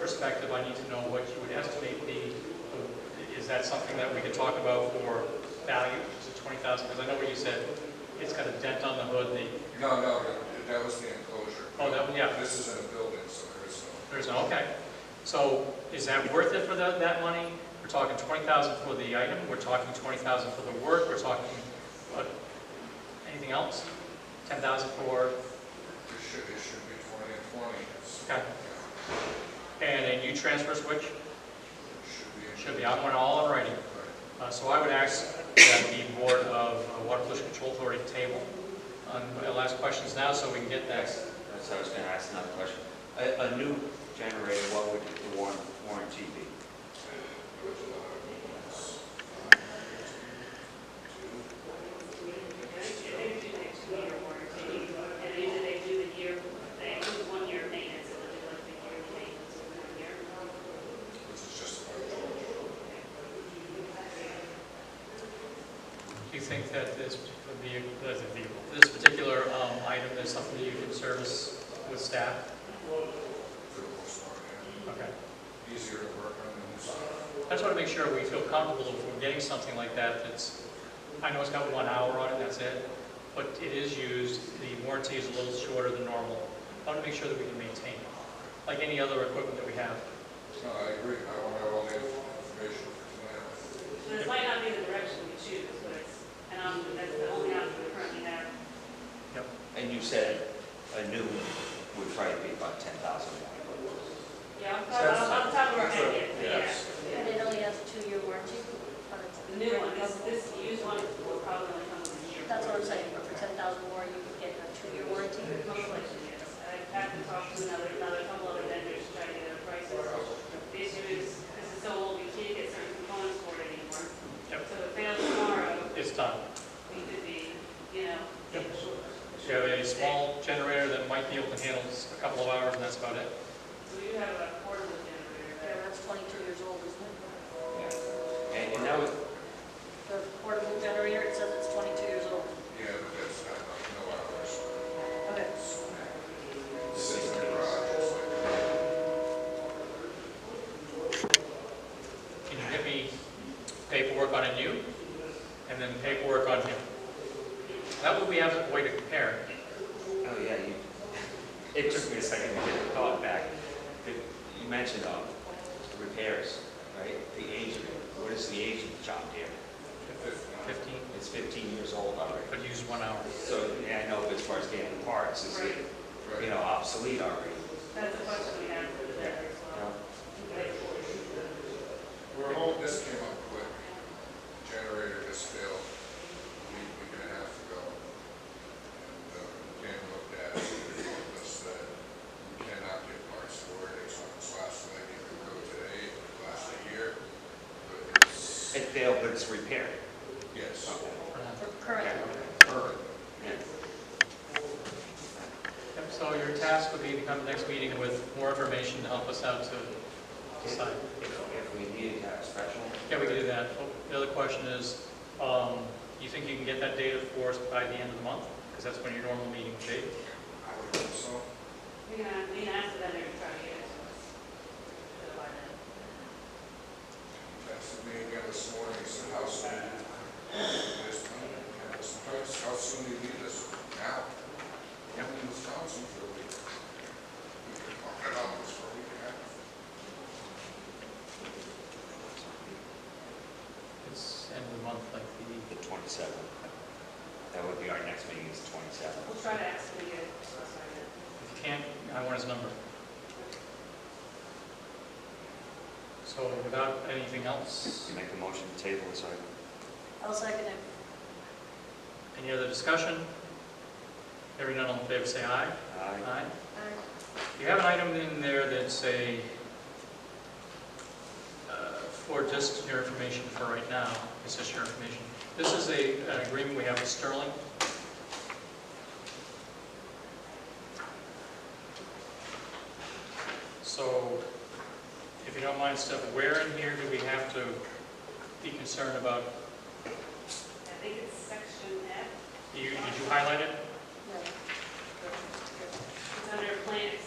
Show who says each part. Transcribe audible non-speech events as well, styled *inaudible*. Speaker 1: perspective, I need to know what you would estimate the, is that something that we could talk about for value, is it twenty thousand? Because I know what you said, it's got a dent on the hood, the,
Speaker 2: No, no, that- that was the enclosure.
Speaker 1: Oh, that one, yeah.
Speaker 2: This is in a building, so there is no,
Speaker 1: there's no, okay. So is that worth it for the- that money? We're talking twenty thousand for the item, we're talking twenty thousand for the work, we're talking, what, anything else? Ten thousand for,
Speaker 2: it should, it should be twenty and twenty. It's-
Speaker 1: okay,
Speaker 2: yeah,
Speaker 1: and a new transfer switch,
Speaker 2: it Should be. in-
Speaker 1: should be, I want it all in writing.
Speaker 2: Right.
Speaker 1: Uh, So I would ask that the Board of uh, Water Pollution Control Authority table um, on my last questions now, so we can get that.
Speaker 3: That's, that's what I was gonna ask another question. A, a new generator, what would the warran- warranty be?
Speaker 4: And usually they do a year, they do one year maintenance, and then they like the year maintenance, one year.
Speaker 2: Which is just about George.
Speaker 1: Do you think that this particular vehicle, that the vehicle, this particular um, item is something that you can service with staff?
Speaker 2: for the most part, yeah.
Speaker 1: Okay.
Speaker 2: Easier to work on than this.
Speaker 1: I just want to make sure we feel comfortable if we're getting something like that that's, I know it's got one hour on it, that's it, but it is used, the warranty is a little shorter than normal. I want to make sure that we can maintain it, like any other equipment that we have.
Speaker 2: No, I agree, I want to have all the information for tonight.
Speaker 4: So this might not be the direction we choose, but it's, and um, that's the only option we currently have.
Speaker 1: Yep.
Speaker 3: And you said a new would probably be about ten thousand more.
Speaker 4: Yeah, I'm talking, I'm talking about that yet,
Speaker 2: Yes.
Speaker 4: yeah.
Speaker 5: And it only has a two-year warranty on its.
Speaker 4: The new one, this, this used one will probably only come in a year.
Speaker 5: That's what I'm saying, for ten thousand more, you could get a two-year warranty.
Speaker 4: I have to talk to another, another couple other vendors to try to get a price. The issue is, this is so old, we can't get certain components for it anymore.
Speaker 1: Yep.
Speaker 4: So if it fails tomorrow,
Speaker 1: It's done.
Speaker 4: we could be, you know.
Speaker 1: Yep. You have a small generator that might be able to handle a couple of hours, and that's about it.
Speaker 4: We do have a portable generator.
Speaker 5: It's twenty-two years old, isn't it?
Speaker 3: And, and that was,
Speaker 5: The portable generator, it says it's twenty-two years old.
Speaker 2: Yeah, but that's not, no hours.
Speaker 5: Okay.
Speaker 2: This is in the garage, it's like.
Speaker 1: Can you get me paperwork on a new, and then paperwork on him? That way we have a way to compare.
Speaker 3: oh yeah, you, *laughs* it took me a second to get the thought back. But You mentioned, um, repairs, right? The age of it, what is the age of the John Deere?
Speaker 1: Fifteen,
Speaker 3: It's fifteen years old already.
Speaker 1: but use one hour.
Speaker 3: So, yeah, I know but as far as getting parts, is it, you know, obsolete already?
Speaker 4: That's the question we have for the vendor as
Speaker 3: you
Speaker 4: well.
Speaker 3: know?
Speaker 2: We're hoping this came up quick. Generator just failed a week, week and a half ago. And uh, Dan looked at it and told us that we cannot get parts for it. It's on its last leg. It could go today, it could last a year. But it's,
Speaker 3: It failed, but it's repaired.
Speaker 2: yes,
Speaker 5: For current.
Speaker 3: Perfect. Yeah.
Speaker 1: Yep, So your task would be to come to the next meeting with more information to help us out to decide.
Speaker 3: If if we needed to have a special.
Speaker 1: Yeah, we can do that. Oh, The other question is, um, you think you can get that data for us by the end of the month? Because that's when your normal meeting would be.
Speaker 2: I would hope so.
Speaker 4: We can, we can ask the vendor to try to get it to us. So by then.
Speaker 2: Texted me again this morning, he said, how soon? This time, yeah, this time, how soon do you need this? Now? I'm in Wisconsin for a week. We can talk about this for a week and a half.
Speaker 1: It's end of the month, like the,
Speaker 3: The 27th. That would be our next meeting is 27th.
Speaker 4: We'll try to ask them to get it to us by then.
Speaker 1: if you can't, I want his number. So without anything else,
Speaker 3: You make a motion to table this item.
Speaker 5: I'll second it.
Speaker 1: any other discussion? Hearing none, all in favor, say aye.
Speaker 3: Aye.
Speaker 1: Aye.
Speaker 5: Aye.
Speaker 1: You have an item in there that's a, uh, for just your information for right now, it's just your information. This is a, an agreement we have with Sterling. So, if you don't mind, Steph, where in here do we have to be concerned about,
Speaker 4: I think it's section F,
Speaker 1: you, did you highlight it?
Speaker 5: No.
Speaker 4: it's under plant